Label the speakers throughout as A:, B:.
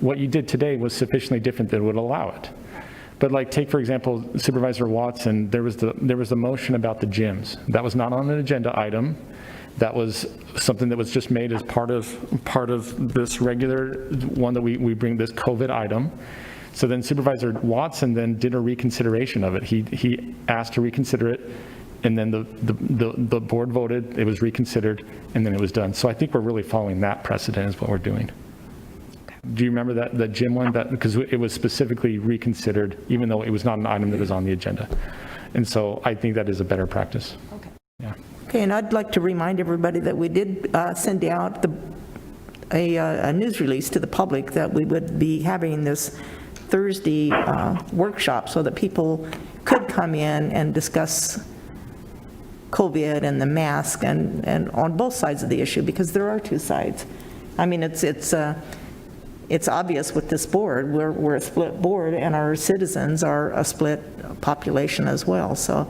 A: what you did today was sufficiently different that it would allow it. But like, take for example Supervisor Watson, there was the, there was the motion about the gyms. That was not on an agenda item. That was something that was just made as part of, part of this regular one that we, we bring this COVID item. So then Supervisor Watson then did a reconsideration of it. He, he asked to reconsider it, and then the, the, the the board voted, it was reconsidered, and then it was done. So I think we're really following that precedent is what we're doing. Do you remember that, the gym one, that, because it was specifically reconsidered, even though it was not an item that was on the agenda. And so I think that is a better practice.
B: Okay, and I'd like to remind everybody that we did uh, send out the, a, uh, a news release to the public that we would be having this Thursday uh, workshop so that people could come in and discuss COVID and the mask and, and on both sides of the issue, because there are two sides. I mean, it's, it's, uh, it's obvious with this board, we're, we're a split board, and our citizens are a split population as well. So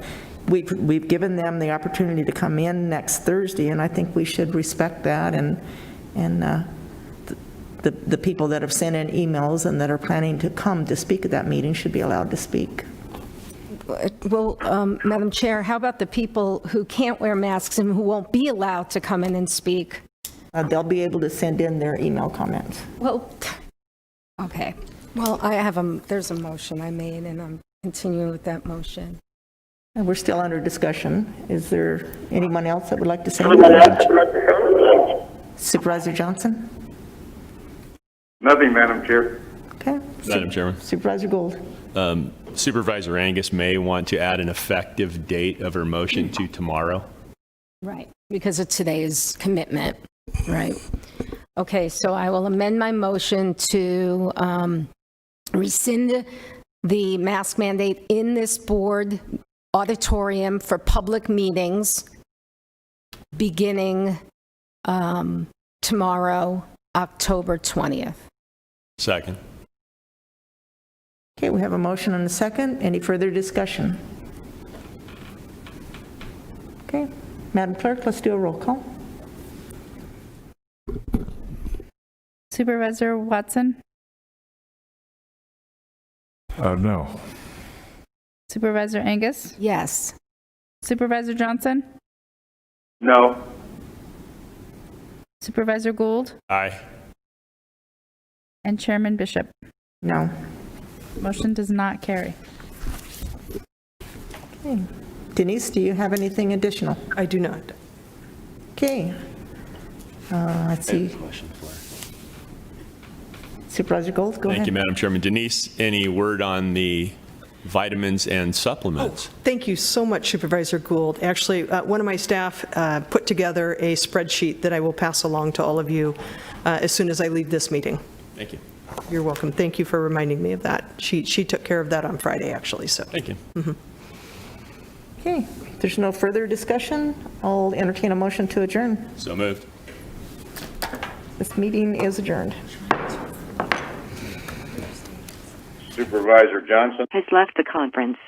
B: we've, we've given them the opportunity to come in next Thursday, and I think we should respect that and, and uh, the, the people that have sent in emails and that are planning to come to speak at that meeting should be allowed to speak.
C: Well, um, Madam Chair, how about the people who can't wear masks and who won't be allowed to come in and speak?
B: Uh, They'll be able to send in their email comments.
C: Well, okay. Well, I have a, there's a motion I made, and I'm continuing with that motion.
B: And we're still under discussion. Is there anyone else that would like to say? anything? Supervisor Johnson?
D: Nothing, Madam Chair.
B: Okay.
E: Madam Chairman. um,
B: Supervisor Gold?
E: Supervisor Angus may want to add an effective date of her motion to tomorrow.
C: Right. Because of today's commitment, right? Okay, so I will amend my motion to um, rescind the mask mandate in this board auditorium for public meetings beginning um, tomorrow, October 20th.
E: Second.
B: Okay, we have a motion and a second. Any further discussion? Okay, Madam Clerk, let's do a roll call.
F: Supervisor Watson,
G: Uh, no.
F: Supervisor Angus,
C: Yes.
F: Supervisor Johnson,
D: No.
F: Supervisor Gould,
E: Aye.
F: and Chairman Bishop.
B: No.
F: Motion does not carry.
B: Denise, do you have anything additional?
H: I do not.
B: Okay. Uh, Let's see. Supervisor Gold, go ahead.
E: Thank you, Madam Chairman. Denise, any word on the vitamins and supplements?
H: Thank you so much Supervisor Gould. Actually, uh, one of my staff uh, put together a spreadsheet that I will pass along to all of you uh, as soon as I leave this meeting.
E: Thank you.
H: You're welcome. Thank you for reminding me of that. She, she took care of that on Friday, actually, so.
E: Thank you.
B: Okay, if there's no further discussion. I'll entertain a motion to adjourn.
E: So moved.
B: This meeting is adjourned.
D: Supervisor Johnson?
I: has left the conference.